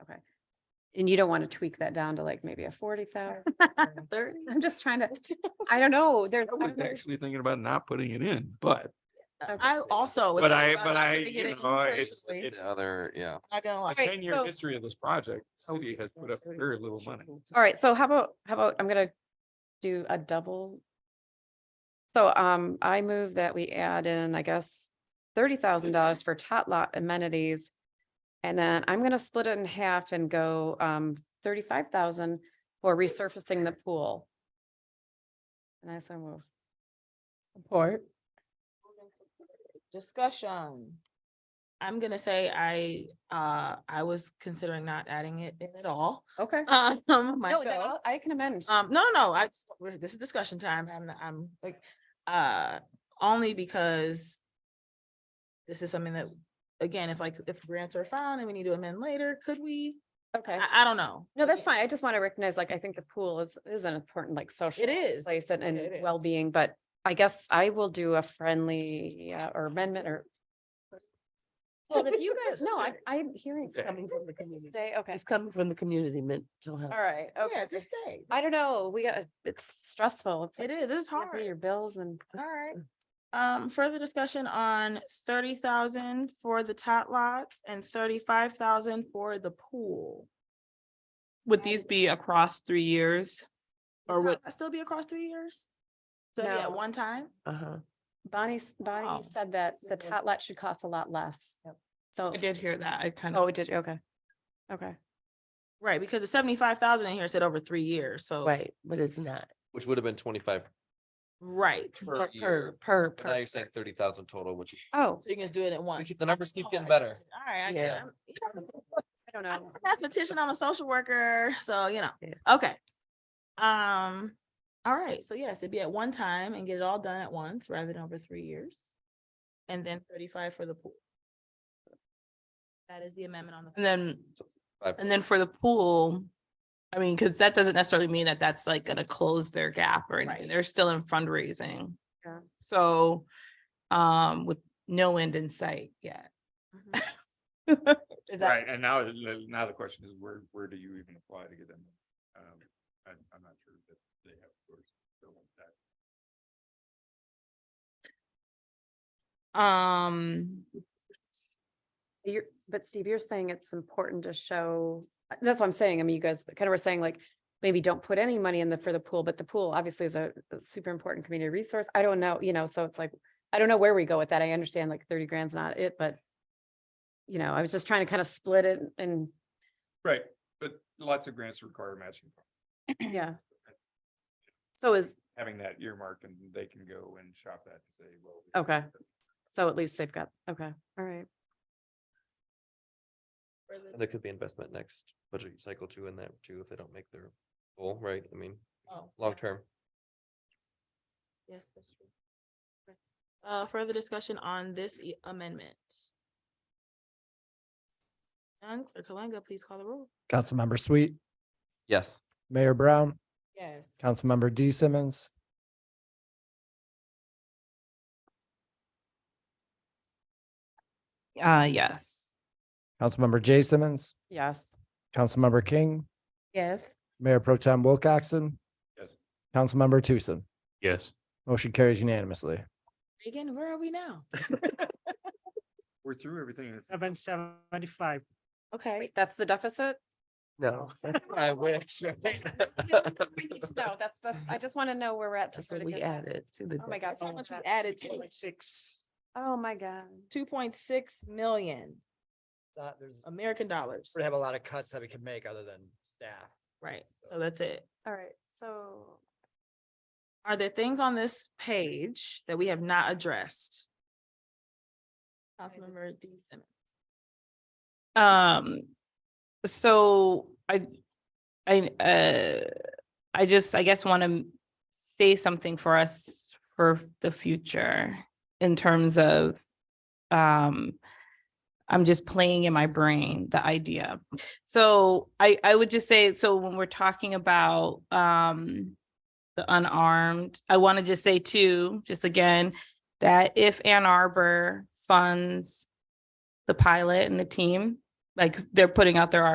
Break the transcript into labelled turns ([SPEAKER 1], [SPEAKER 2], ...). [SPEAKER 1] And you don't want to tweak that down to like maybe a forty thousand?
[SPEAKER 2] Thirty.
[SPEAKER 1] I'm just trying to, I don't know, there's.
[SPEAKER 3] I was actually thinking about not putting it in, but,
[SPEAKER 2] I also. was
[SPEAKER 3] but
[SPEAKER 2] thinking
[SPEAKER 3] I,
[SPEAKER 2] about
[SPEAKER 3] but
[SPEAKER 2] not
[SPEAKER 3] I,
[SPEAKER 2] putting it
[SPEAKER 3] you
[SPEAKER 2] in
[SPEAKER 3] know, it's,
[SPEAKER 2] personally.
[SPEAKER 3] it's
[SPEAKER 4] Other, yeah.
[SPEAKER 2] Not gonna lie.
[SPEAKER 3] a
[SPEAKER 1] Alright, so- Oh,
[SPEAKER 3] ten-year history of this project. City has put up very little money.
[SPEAKER 1] All right, so how about, how about, I'm gonna do a double. So um, I move that we add in, I guess, thirty thousand dollars for tot lot amenities. And then I'm gonna split it in half and go um thirty-five thousand for resurfacing the pool. And I so move.
[SPEAKER 5] Support.
[SPEAKER 2] Discussion. I'm gonna say I, uh, I was considering not adding it in at all,
[SPEAKER 1] Okay.
[SPEAKER 2] um,
[SPEAKER 1] No, then
[SPEAKER 2] myself.
[SPEAKER 1] I'll- I can amend.
[SPEAKER 2] Um, no, no, no, I, just- we're- this is discussion time, I'm, not- I'm like, uh, only because this is something that, again, if like, if grants are found and we need to amend later, could we?
[SPEAKER 1] Okay.
[SPEAKER 2] I, I don't know.
[SPEAKER 1] No, that's
[SPEAKER 2] Again,
[SPEAKER 1] fine. I just want to recognize, like, I think the pool is, is an important, like, social.
[SPEAKER 2] It is.
[SPEAKER 1] Place and,
[SPEAKER 2] It is.
[SPEAKER 1] and well-being, but I guess I will do a friendly, uh, or amendment or. Well, if you guys, no, I, I'm hearing.
[SPEAKER 3] Okay.
[SPEAKER 1] something.
[SPEAKER 5] Coming from the community.
[SPEAKER 1] Stay, okay.
[SPEAKER 5] It's coming from the community mental health.
[SPEAKER 1] All right,
[SPEAKER 2] Yeah,
[SPEAKER 1] okay.
[SPEAKER 2] just stay.
[SPEAKER 1] I don't know, we got, it's stressful. It's like,
[SPEAKER 2] It is, it's
[SPEAKER 1] you gotta pay
[SPEAKER 2] hard.
[SPEAKER 1] Your bills and.
[SPEAKER 2] All right. Um, further discussion on thirty thousand for the tot lots and thirty-five thousand for the pool.
[SPEAKER 6] Would these be across three years? Or
[SPEAKER 2] Would
[SPEAKER 6] would,
[SPEAKER 2] that Still be across three years? So yeah,
[SPEAKER 1] No.
[SPEAKER 2] one time?
[SPEAKER 5] Uh-huh.
[SPEAKER 1] Bonnie, s- Bonnie
[SPEAKER 2] Wow.
[SPEAKER 1] you said that the
[SPEAKER 2] Mhm.
[SPEAKER 1] tot lot should cost a lot less. So,
[SPEAKER 6] I did hear that, I kind of,
[SPEAKER 1] oh, did, you? okay. Okay,
[SPEAKER 2] Right, because the seventy-five thousand in here said over three years, so.
[SPEAKER 5] Right, but it's not.
[SPEAKER 4] Which would have been twenty-five
[SPEAKER 2] Right.
[SPEAKER 4] per
[SPEAKER 5] Per,
[SPEAKER 4] year.
[SPEAKER 5] per,
[SPEAKER 4] But now
[SPEAKER 5] per.
[SPEAKER 4] you're saying thirty thousand total, which is,
[SPEAKER 1] oh,
[SPEAKER 2] So you can just do it at
[SPEAKER 4] we
[SPEAKER 2] once.
[SPEAKER 4] keep- the numbers keep
[SPEAKER 2] Oh,
[SPEAKER 4] getting
[SPEAKER 2] I
[SPEAKER 4] better.
[SPEAKER 2] see. All right, I get it.
[SPEAKER 5] Yeah.
[SPEAKER 2] I'm- yeah,
[SPEAKER 1] I don't
[SPEAKER 2] I'm
[SPEAKER 1] know.
[SPEAKER 2] a mathematician, I'm a social worker, so you
[SPEAKER 5] Yeah.
[SPEAKER 2] know, okay. Um, all right, so yes, it'd be at one time and get it all done at once rather than over three years. And then thirty-five for the pool. That is the amendment on the.
[SPEAKER 6] and then,
[SPEAKER 4] Five-
[SPEAKER 6] and then for the pool. I mean, because that doesn't necessarily mean that that's like gonna close their gap or
[SPEAKER 2] Right.
[SPEAKER 6] anything, they're still in fundraising.
[SPEAKER 1] Yeah.
[SPEAKER 6] So, um, with no end in sight yet.
[SPEAKER 1] Mm-hmm.
[SPEAKER 2] Mhm.
[SPEAKER 6] Is that-
[SPEAKER 3] Right, and now, the- now the question is, where, where do you even apply to get them? Um, I, I'm not sure that they have. of course, don't want that.
[SPEAKER 6] Um,
[SPEAKER 1] You're, but Steve, you're saying it's important to show, uh, that's what I'm saying. I mean, you guys kind of were saying like, maybe don't put any money in the, for the pool, but the pool obviously is a a super important community resource. I don't know, you know, so it's like, I don't know where we go with that. I understand like thirty grand's not it, but you know, I was just trying to kind of split it and,
[SPEAKER 3] Right, but lots of grants require matching. funds.
[SPEAKER 1] yeah. So is,
[SPEAKER 3] Having that earmark and they can go and shop that and say, well. we-
[SPEAKER 1] Okay. so at least they've got, okay, all right.
[SPEAKER 2] Further
[SPEAKER 4] And there could be investment next budget cycle too in that too, if they don't make their goal, right? I mean,
[SPEAKER 2] Oh,
[SPEAKER 4] long term.
[SPEAKER 2] Yes, that's true. Okay. Uh, further discussion on this e- amendment? And Clerk Kalanga, please call the roll.
[SPEAKER 7] Councilmember Sweet,
[SPEAKER 4] Yes.
[SPEAKER 7] Mayor Brown,
[SPEAKER 2] Yes.
[SPEAKER 7] Councilmember D Simmons,
[SPEAKER 6] uh, yes.
[SPEAKER 7] Councilmember J Simmons,
[SPEAKER 1] Yes,
[SPEAKER 7] Councilmember King,
[SPEAKER 5] Yes.
[SPEAKER 7] Mayor Pro Tem Wilcoxen,
[SPEAKER 3] Yes.
[SPEAKER 7] Councilmember Tucson.
[SPEAKER 3] Yes.
[SPEAKER 7] Motion carries unanimously.
[SPEAKER 2] Reagan, where are we now?
[SPEAKER 3] We're through everything. and it's-
[SPEAKER 8] Seven seventy-five.
[SPEAKER 2] Okay.
[SPEAKER 1] wait, that's the deficit?
[SPEAKER 5] No.
[SPEAKER 4] I wish.
[SPEAKER 1] No, we need to know. That's, that's, I just want to know where we're at to
[SPEAKER 5] That's
[SPEAKER 1] sort of
[SPEAKER 5] what we
[SPEAKER 1] get that.
[SPEAKER 5] added to the.
[SPEAKER 1] Oh my God.
[SPEAKER 2] That's how
[SPEAKER 1] so
[SPEAKER 2] much we
[SPEAKER 1] much.
[SPEAKER 2] added to
[SPEAKER 8] Six.
[SPEAKER 1] Oh, my God.
[SPEAKER 2] two point six million
[SPEAKER 8] There's,
[SPEAKER 2] American dollars.
[SPEAKER 8] we have a lot of cuts that we can make other than staff.
[SPEAKER 2] Right, so that's it.
[SPEAKER 1] All right, so.
[SPEAKER 2] Are there things on this page that we have not addressed? Councilmember D Simmons.
[SPEAKER 6] Um, so I, I, uh, I just, I guess want to say something for us for the future in terms of, um, I'm just playing in my brain the idea. So I, I would just say, so when we're talking about, um, the unarmed, I want to just say too, just again, that if Ann Arbor funds the pilot and the team, like they're putting out their